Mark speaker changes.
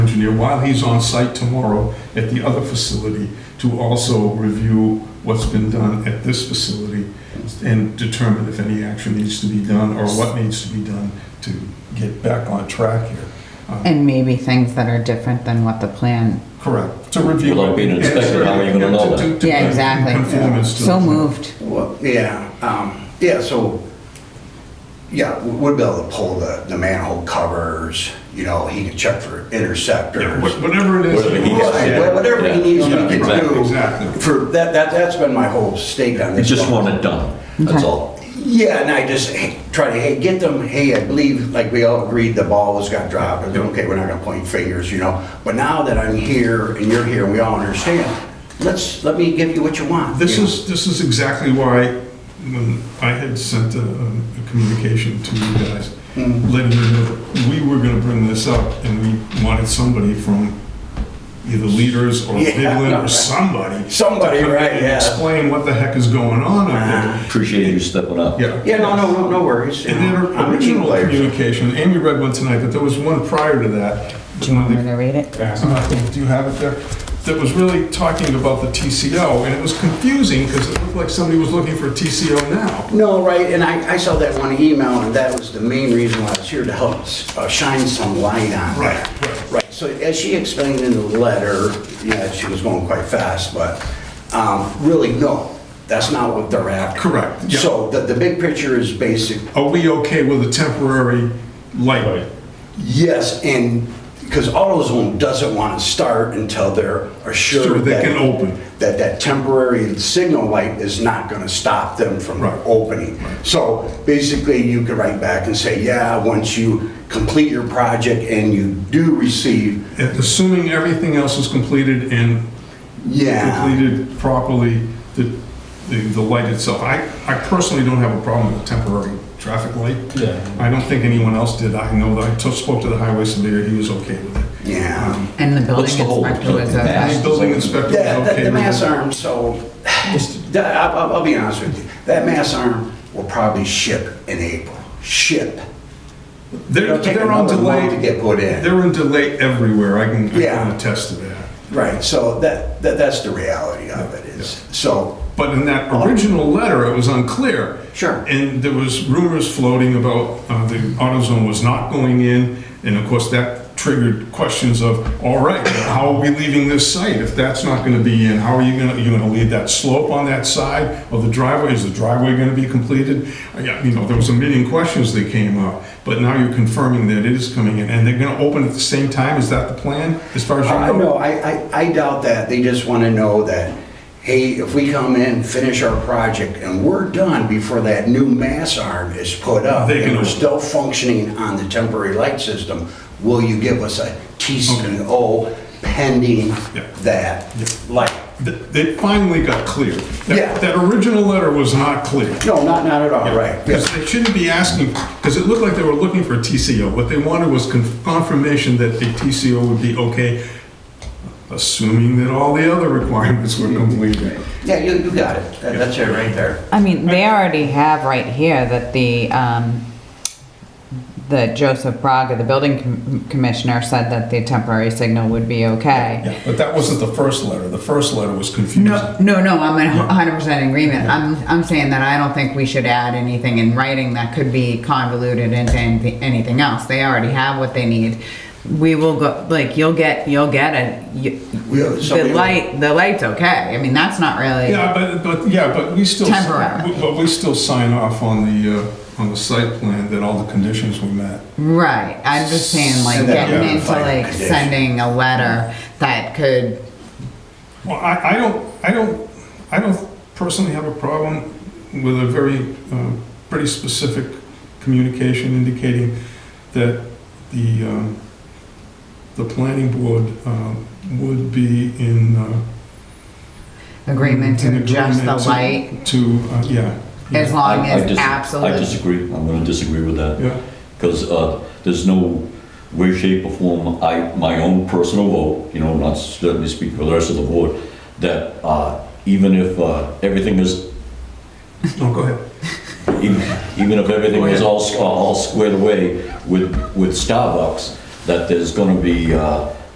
Speaker 1: engineer while he's on site tomorrow at the other facility to also review what's been done at this facility and determine if any action needs to be done or what needs to be done to get back on track here. Uh,
Speaker 2: And maybe things that are different than what the plan,
Speaker 1: Correct, to review.
Speaker 3: Without being
Speaker 1: and-
Speaker 3: inspected, how are you gonna know
Speaker 1: and to-
Speaker 3: that?
Speaker 1: to-
Speaker 2: yeah,
Speaker 1: in
Speaker 2: exactly.
Speaker 1: Conformance to.
Speaker 2: So
Speaker 1: the-
Speaker 2: moved.
Speaker 4: Well, yeah, um, yeah, so, yeah, we- we'd be able to pull the, the manhole covers, you know, he can check for
Speaker 1: Yeah,
Speaker 4: interceptors.
Speaker 1: wha- Whatever it is.
Speaker 3: Whatever he has
Speaker 4: Right,
Speaker 3: Yeah.
Speaker 4: wha- Whatever he needs
Speaker 1: Yeah,
Speaker 4: to do.
Speaker 1: exactly, exactly.
Speaker 4: For, that, that, that's been my whole stake on
Speaker 3: I
Speaker 4: this.
Speaker 3: just
Speaker 4: one.
Speaker 3: want it done, that's
Speaker 2: Okay.
Speaker 3: all.
Speaker 4: Yeah, and I just hey, try to, hey, get them, hey, I believe, like we all agreed, the ball was got dropped, and okay, we're not gonna point fingers, you know? But now that I'm here, and you're here, and we all understand, let's, let me give you what you want.
Speaker 1: This
Speaker 4: you know?
Speaker 1: is, this is exactly why, when I had sent a a communication to you guys,
Speaker 4: Mm-hmm.
Speaker 1: letting you know that we were gonna bring this up, and we wanted somebody from either leaders or
Speaker 4: Yeah,
Speaker 1: Midland or
Speaker 4: right.
Speaker 1: somebody.
Speaker 4: Somebody,
Speaker 1: to come in
Speaker 4: right,
Speaker 1: and
Speaker 4: yeah. Ah.
Speaker 1: Explain what the heck is going on up there.
Speaker 3: Appreciate you stepping up.
Speaker 1: Yeah.
Speaker 4: Yeah, no, no, no, no worries. you
Speaker 1: And then
Speaker 4: know,
Speaker 1: her
Speaker 4: I'm a team
Speaker 1: original
Speaker 4: player, so-
Speaker 1: communication, Amy read one tonight, but there was one prior to that.
Speaker 2: Do you want me to read it?
Speaker 1: Uh, Do you have it there? That was really talking about the TCO, and it was confusing because it looked like somebody was looking for a TCO now.
Speaker 4: No, right, and I, I saw that one email, and that was the main reason why I was here, to help uh, shine some light on
Speaker 1: Right,
Speaker 4: that.
Speaker 1: right.
Speaker 4: Right, so as she explained in the letter, yeah, she was going quite fast, but um, really, no, that's not what they're after.
Speaker 1: Correct, yeah.
Speaker 4: So the, the big picture is basic,
Speaker 1: Are we okay with a temporary light?
Speaker 4: yes, and, because AutoZone doesn't want to start until they're
Speaker 1: Sure,
Speaker 4: assured
Speaker 1: they
Speaker 4: that...
Speaker 1: can open.
Speaker 4: That that temporary signal light is not going to stop them from
Speaker 1: Right.
Speaker 4: opening. So basically, you could write back and say, yeah, once you complete your project and you do receive,
Speaker 1: And Assuming everything else is completed and
Speaker 4: yeah.
Speaker 1: completed properly, the, the the light itself. I, I personally don't have a problem with temporary traffic light.
Speaker 5: Yeah.
Speaker 1: I don't think anyone else did. I know that I t- spoke to the highway surveyor, he was okay with it.
Speaker 4: Yeah.
Speaker 1: Um,
Speaker 2: And the building
Speaker 3: What's the whole-
Speaker 2: inspector was
Speaker 3: the
Speaker 1: The
Speaker 2: okay.
Speaker 3: mask?
Speaker 1: building inspector was
Speaker 4: That, that-
Speaker 1: okay
Speaker 4: the
Speaker 1: with
Speaker 4: mass
Speaker 1: it.
Speaker 4: arm, so, that- I'll, I'll- I'll be honest with you, that mass arm will probably ship in April, ship.
Speaker 1: They're,
Speaker 4: It'll take
Speaker 1: they're on
Speaker 4: another month
Speaker 1: delay.
Speaker 4: To get put in.
Speaker 1: They're in delay everywhere, I can, I can
Speaker 4: Yeah.
Speaker 1: attest to that.
Speaker 4: Right, so that, that, that's the reality of it is, so,
Speaker 1: But in that original letter, it was unclear.
Speaker 4: Sure.
Speaker 1: And there was rumors floating about uh, the AutoZone was not going in, and of course, that triggered questions of, all right, how are we leaving this site if that's not gonna be in? How are you gonna, you gonna leave that slope on that side of the driveway? Is the driveway gonna be completed? Uh, yeah, You know, there was a million questions that came up, but now you're confirming that it is coming in, and they're gonna open at the same time? Is that the plan, as far as you know?
Speaker 4: I know, I, I, I doubt that, they just wanna know that, hey, if we come in, finish our project, and we're done before that new mass arm is put up,
Speaker 1: They can
Speaker 4: and we're
Speaker 1: open.
Speaker 4: still functioning on the temporary light system, will you give us a TCO pending
Speaker 1: Yeah.
Speaker 4: that light?
Speaker 1: Th- It finally got clear. That-
Speaker 4: Yeah.
Speaker 1: That original letter was not clear.
Speaker 4: No, not, not at all, right,
Speaker 1: Because
Speaker 4: yes,
Speaker 1: they shouldn't be asking, because it looked like they were looking for a TCO. What they wanted was conf- confirmation that the TCO would be okay, assuming that all the other requirements were completed.
Speaker 4: yeah, you, you got it, That- that's it right there.
Speaker 2: I mean, they already have right here that the, um, the Joseph Braga, the building com- commissioner, said that the temporary signal would be okay.
Speaker 1: Yeah, But that wasn't the first letter. The first letter was
Speaker 2: No,
Speaker 1: confusing.
Speaker 2: no, no, I'm in hundred percent agreement. I'm, I'm saying that I don't think we should add anything in writing that could be convoluted into anything, anything else. They already have what they need. We will go, like, you'll get, you'll get it. You-
Speaker 4: Yeah, so we
Speaker 2: The
Speaker 4: will.
Speaker 2: light, the light's okay. I mean, that's not really.
Speaker 1: Yeah, but, but, yeah, but we still.
Speaker 2: Temporary.
Speaker 1: we- But we still sign off on the, uh, on the site plan that all the conditions were met.
Speaker 2: Right, I'm just saying, like,
Speaker 4: Send that
Speaker 2: getting
Speaker 1: down to
Speaker 2: into
Speaker 4: final
Speaker 2: like
Speaker 4: condition.
Speaker 2: sending a letter that could,
Speaker 1: Well, I, I don't, I don't, I don't personally have a problem with a very, uh, pretty specific communication indicating that the, um, the planning board, um, would be in, uh.
Speaker 2: agreement to
Speaker 1: in
Speaker 2: adjust the
Speaker 1: agreement to-
Speaker 2: light,
Speaker 1: To, uh, yeah.
Speaker 2: as
Speaker 1: yeah,
Speaker 2: long
Speaker 3: I- I
Speaker 2: as
Speaker 3: dis- I
Speaker 2: absolute.
Speaker 3: disagree, I'm gonna disagree with that.
Speaker 1: Yeah,
Speaker 3: Because there's no way, shape, or form, I, my own personal vote, you know, not certainly speaking for the rest of the board, that uh, even if uh, everything is,
Speaker 1: no, go ahead.
Speaker 3: even even if everything is all, s- all squared away with, with Starbucks, that there's gonna be uh,